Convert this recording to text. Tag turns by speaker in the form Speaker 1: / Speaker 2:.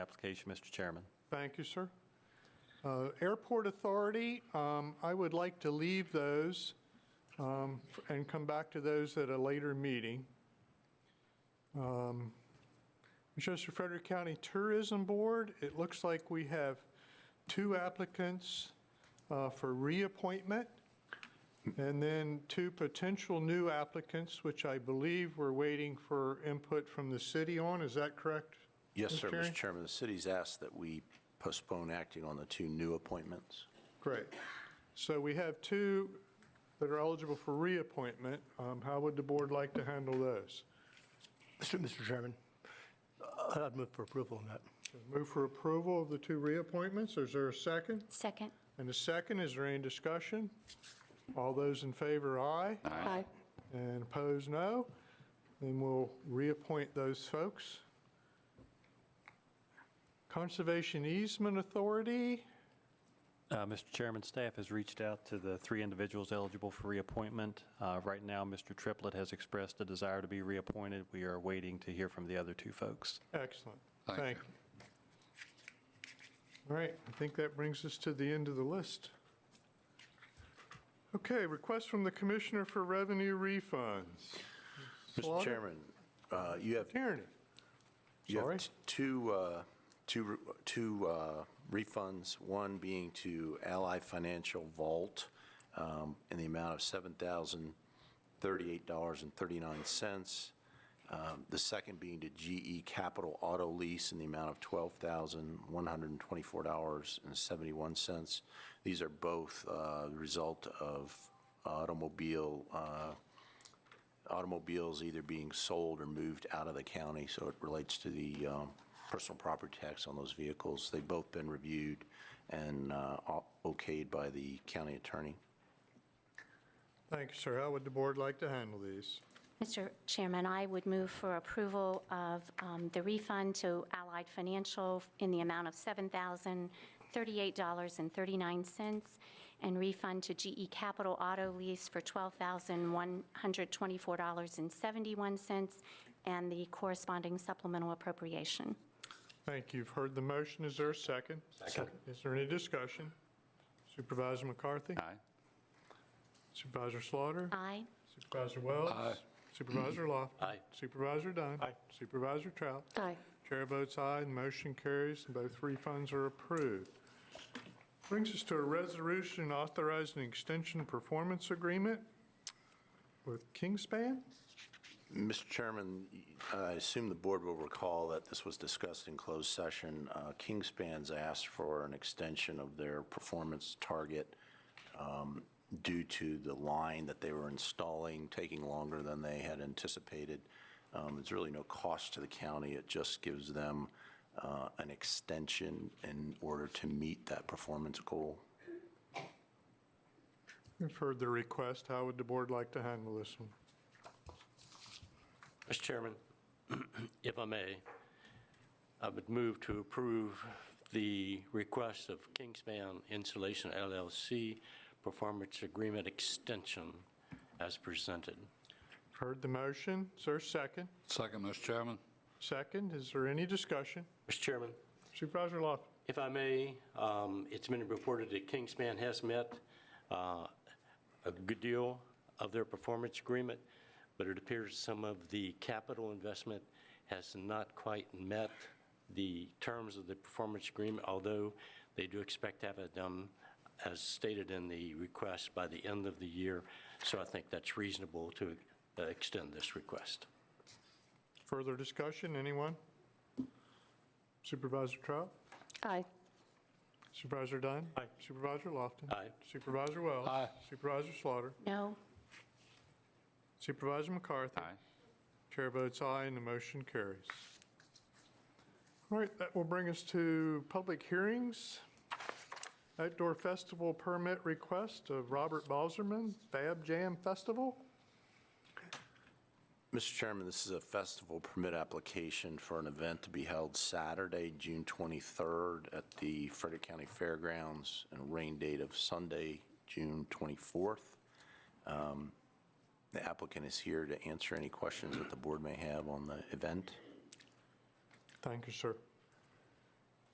Speaker 1: Application, Mr. Chairman.
Speaker 2: Thank you, sir. Uh, Airport Authority, um, I would like to leave those um, and come back to those at a later meeting. Um, Manchester Frederick County Tourism Board, it looks like we have two applicants uh, for reappointment, and then two potential new applicants, which I believe we're waiting for input from the city on. Is that correct?
Speaker 3: Yes, sir,
Speaker 2: Terry?
Speaker 3: Mr. Chairman. The city's asked that we postpone acting on the two new appointments.
Speaker 2: Great. So we have two that are eligible for reappointment. Um, How would the board like to handle those?
Speaker 4: Mr. Mr. Chairman, I'd move for approval on that.
Speaker 2: Move for approval of the two reappointments. Is there a second?
Speaker 5: Second.
Speaker 2: And a second, is there any discussion? All those in favor, aye.
Speaker 5: Aye.
Speaker 2: And opposed, no. Then we'll reappoint those folks. Conservation Easement Authority,
Speaker 1: Uh, Mr. Chairman, staff has reached out to the three individuals eligible for reappointment. Uh, Right now, Mr. Triplett has expressed a desire to be reappointed. We are waiting to hear from the other two folks.
Speaker 2: excellent.
Speaker 6: Thank you.
Speaker 2: Thank you. All right, I think that brings us to the end of the list. Okay, request from the Commissioner for Revenue Refunds.
Speaker 3: Mr.
Speaker 2: Slaughter?
Speaker 3: Chairman, uh, you have,
Speaker 2: Tierney,
Speaker 3: you
Speaker 2: sorry.
Speaker 3: have t- two, uh, two, re- two uh, refunds, one being to Ally Financial Vault um, in the amount of $7,038.39. Um, The second being to GE Capital Auto Lease in the amount of $12,124.71. These are both uh, the result of automobile, uh, automobiles either being sold or moved out of the county, so it relates to the um, personal property tax on those vehicles. They've both been reviewed and uh, o- okayed by the county attorney.
Speaker 2: Thank you, sir. How would the board like to handle these?
Speaker 5: Mr. Chairman, I would move for approval of um, the refund to Allied Financial in the amount of $7,038.39 and refund to GE Capital Auto Lease for $12,124.71 and the corresponding supplemental appropriation.
Speaker 2: Thank you. You've heard the motion. Is there a second? Second. Is there any discussion? Supervisor McCarthy?
Speaker 6: Aye.
Speaker 2: Supervisor Slaughter?
Speaker 5: Aye.
Speaker 2: Supervisor Wells?
Speaker 6: Aye.
Speaker 2: Supervisor Lofton?
Speaker 3: Aye.
Speaker 2: Supervisor Dunn? Aye. Supervisor Trout?
Speaker 5: Aye.
Speaker 2: Chair votes aye, and motion carries, and both refunds are approved. Brings us to a resolution authorizing extension performance agreement with Kingspan.
Speaker 3: Mr. Chairman, I assume the board will recall that this was discussed in closed session. Uh, Kingspan's asked for an extension of their performance target um, due to the line that they were installing taking longer than they had anticipated. Um, There's really no cost to the county. It just gives them uh, an extension in order to meet that performance goal.
Speaker 2: You've heard the request. How would the board like to handle this one?
Speaker 7: Mr. Chairman, if I may, I would move to approve the request of Kingspan Insulation LLC Performance Agreement Extension as presented.
Speaker 2: Heard the motion. Is there a second?
Speaker 6: Second, Mr. Chairman.
Speaker 2: Second, is there any discussion?
Speaker 7: Mr. Chairman,
Speaker 2: Supervisor Lofton?
Speaker 7: if I may, um, it's been reported that Kingspan has met uh, a good deal of their performance agreement, but it appears some of the capital investment has not quite met the terms of the performance agreement, although they do expect to have it done, as stated in the request, by the end of the year. So I think that's reasonable to uh, extend this request.
Speaker 2: Further discussion, anyone? Supervisor Trout?
Speaker 5: Aye.
Speaker 2: Supervisor Dunn? Aye. Supervisor Lofton?
Speaker 7: Aye.
Speaker 2: Supervisor Wells?
Speaker 6: Aye.
Speaker 2: Supervisor Slaughter?
Speaker 5: No.
Speaker 2: Supervisor McCarthy?
Speaker 6: Aye.
Speaker 2: Chair votes aye, and the motion carries. All right, that will bring us to public hearings. Outdoor festival permit request of Robert Balzerman, Fab Jam Festival.
Speaker 3: Mr. Chairman, this is a festival permit application for an event to be held Saturday, June 23rd at the Frederick County Fairgrounds and a rain date of Sunday, June 24th. Um, The applicant is here to answer any questions that the board may have on the event.
Speaker 2: Thank you, sir.